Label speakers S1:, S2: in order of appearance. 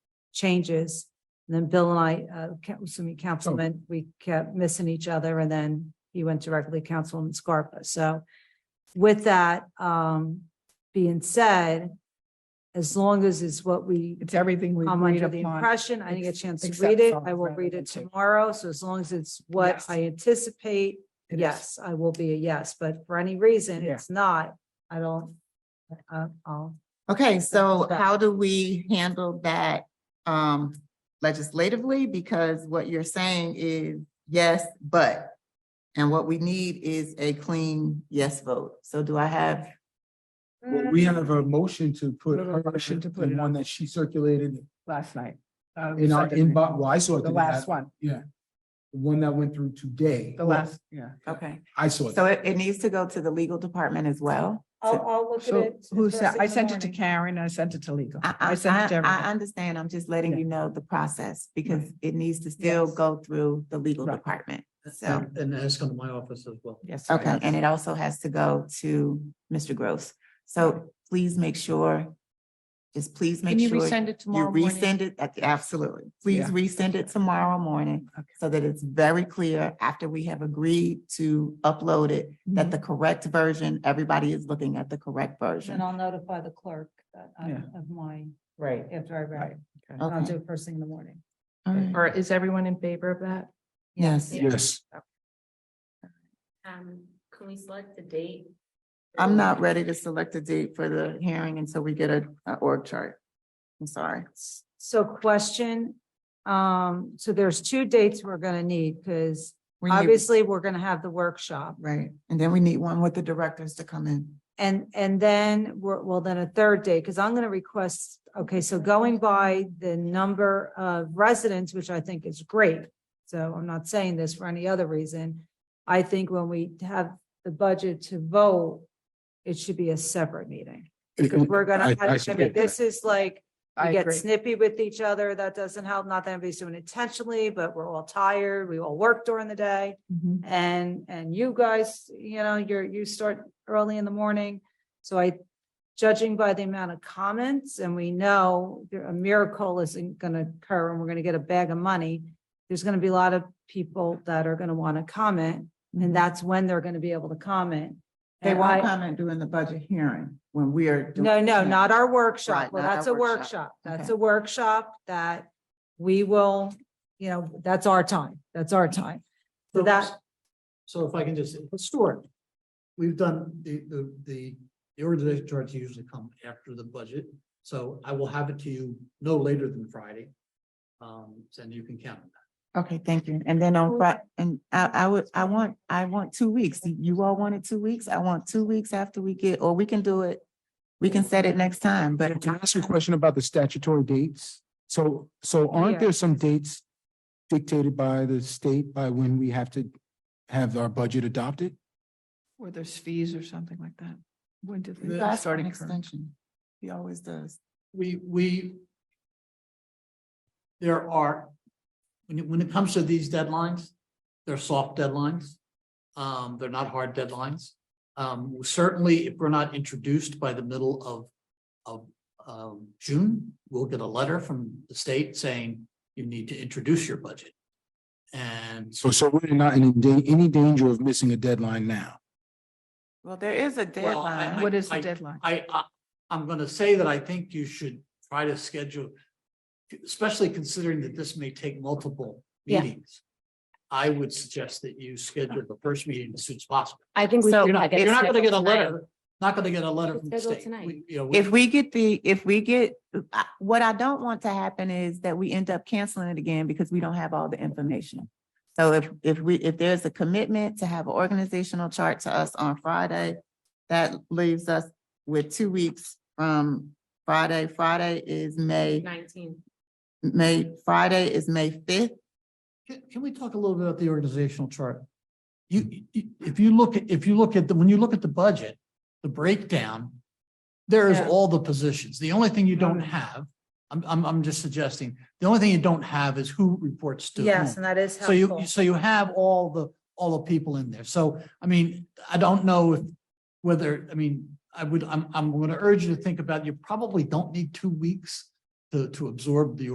S1: changes. And then Bill and I, uh, ca- excuse me,
S2: Oh.
S1: Councilman, we kept missing each other and then he went directly to Councilman Scarpa. So with that, um, being said, as long as it's what we
S2: It's everything we
S1: I'm
S2: agreed
S1: under the
S2: upon.
S1: impression, I didn't get a
S2: ex-
S1: chance to
S2: except
S1: read it.
S2: some
S1: I will
S2: rather
S1: read
S2: than
S1: it
S2: two.
S1: tomorrow, so as long as it's what
S2: Yes.
S1: I anticipate,
S2: It is.
S1: yes, I will be a yes, but for any reason,
S2: Yeah.
S1: it's not, I don't. Uh, I'll,
S3: Okay, so
S1: correct.
S3: how do we handle that um legislatively? Because what you're saying is yes, but. And what we need is a clean yes vote. So do I have,
S4: Well, we have a motion to put
S2: Mm-hmm. We have a
S4: her,
S2: motion to put
S4: the
S2: it
S4: one
S2: on.
S4: that she circulated
S2: Last night. Uh,
S4: in our
S2: second-
S4: inbox, well, I saw
S2: The
S4: it today.
S2: last one,
S4: The One that went through today.
S2: the last, yeah.
S3: okay,
S4: I saw it.
S3: so it it needs to go to the legal department as well.
S1: I'll, I'll look at
S2: So
S1: it.
S2: who
S1: first
S2: sent,
S1: thing
S2: I
S1: in the
S2: sent it to
S1: morning.
S2: Karen, I sent it to legal.
S3: I
S2: I
S3: I
S2: sent it to
S3: I I
S2: everybody.
S3: understand. I'm just letting
S2: Yeah.
S3: you know the process because it needs to still
S2: Yes.
S3: go through the legal
S2: Right.
S3: department. So,
S5: And and that's come to my office as well.
S2: Yes. I
S3: okay,
S2: have.
S3: and it also has to go to Mr. Gross. So please make sure, just please make
S6: Can you
S3: sure.
S6: resend it
S3: You
S6: tomorrow morning?
S3: resend it, at- absolutely. Please
S2: Yeah.
S3: resend it tomorrow morning
S2: Okay.
S3: so that it's very clear after we have agreed to upload it,
S2: Mm-hmm.
S3: that the correct version, everybody is looking at the correct
S1: And
S3: version.
S1: I'll notify the clerk that I'm- of my,
S3: Right.
S1: after I read it, and I'll do
S3: Okay.
S1: it first thing in the morning.
S3: All right.
S6: Or is everyone in favor of that?
S3: Yes,
S4: Yes,
S7: Um, can we select the date?
S3: I'm not ready to select a date for the hearing until we get a, a org chart. I'm sorry.
S1: So question, um, so there's two dates we're gonna need, because
S3: We need-
S1: obviously, we're gonna have the workshop.
S3: Right, and then we need one with the directors to come in.
S1: And, and then, we're well, then a third day, because I'm going to request, okay, so going by the number of residents, which I think is great. So I'm not saying this for any other reason. I think when we have the budget to vote, it should be a separate meeting. Because we're
S4: I-
S1: gonna,
S4: I
S1: I mean,
S4: support
S1: this is like,
S2: I
S1: we get
S2: agree.
S1: snippy with each other. That doesn't help. Not that anybody's doing it intentionally, but we're all tired. We all work during the day. And, and you guys, you know, you're, you start early in the morning. So I, judging by the amount of comments, and we know there- a miracle isn't going to occur and we're going to get a bag of money. There's going to be a lot of people that are going to want to comment and that's when they're going to be able to comment.
S3: They
S1: And
S3: won't
S1: I-
S3: comment during the budget hearing when we are. doing-
S1: no, no, not our workshop.
S3: Right,
S1: Well,
S3: not our
S1: that's a
S3: workshop.
S1: workshop. That's
S3: Okay.
S1: a workshop that we will, you know, that's our time. That's our time. So that,
S5: So if I can just, historic, we've done the, the, the, the organization charts usually come after the budget. So I will have it to you no later than Friday. Um, and you can count on that.
S3: Okay, thank you. And then on Fri- and I, I would, I want, I want two weeks. You all wanted two weeks. I want two weeks after we get, or we can do it. We can set it next time, but
S4: Can I ask you a question about the statutory dates? So, so aren't there some dates dictated by the state by when we have to have our budget adopted?
S6: Or there's fees or something like that? When did
S3: you
S6: they
S3: asked for
S6: start
S3: an
S6: incurring?
S3: extension. He always does.
S5: We, we. There are, when it, when it comes to these deadlines, they're soft deadlines. Um, they're not hard deadlines. Um, certainly if we're not introduced by the middle of, of, um, June, we'll get a letter from the state saying you need to introduce your budget. And
S4: So, so we're not in da- any danger of missing a deadline now.
S3: Well, there is a
S5: Well, I-
S3: deadline.
S6: What is the
S5: I-
S6: deadline?
S5: I, I, I'm gonna say that I think you should try to schedule, especially considering that this may take multiple
S1: Yeah.
S5: meetings. I would suggest that you schedule the first meeting as soon as possible.
S7: Oh, I think
S5: You're
S7: so.
S5: not, you're not gonna get a
S7: Schedule tonight.
S5: letter, not gonna get a letter from the
S7: Schedule
S5: state.
S7: tonight.
S5: We- you know, we-
S3: If we get the, if we get, I- what I don't want to happen is that we end up canceling it again because we don't have all the information. So if, if we, if there's a commitment to have an organizational chart to us on Friday, that leaves us with two weeks from Friday. Friday is May,
S7: Nineteen.
S3: May, Friday is May fifth.
S5: Can, can we talk a little bit about the organizational chart? You, you- if you look, at if you look at the, when you look at the budget, the breakdown, there is
S6: Yeah.
S5: all the positions. The only thing you don't
S1: Mm-hmm.
S5: have, I'm, I'm, I'm just suggesting, the only thing you don't have is who reports to
S1: yes, and
S5: whom.
S1: that is
S5: So you,
S1: helpful.
S5: so you have all the, all the people in there. So, I mean, I don't know if, whether, I mean, I would, I'm, I'm gonna urge you to think about, you probably don't need two weeks to, to absorb the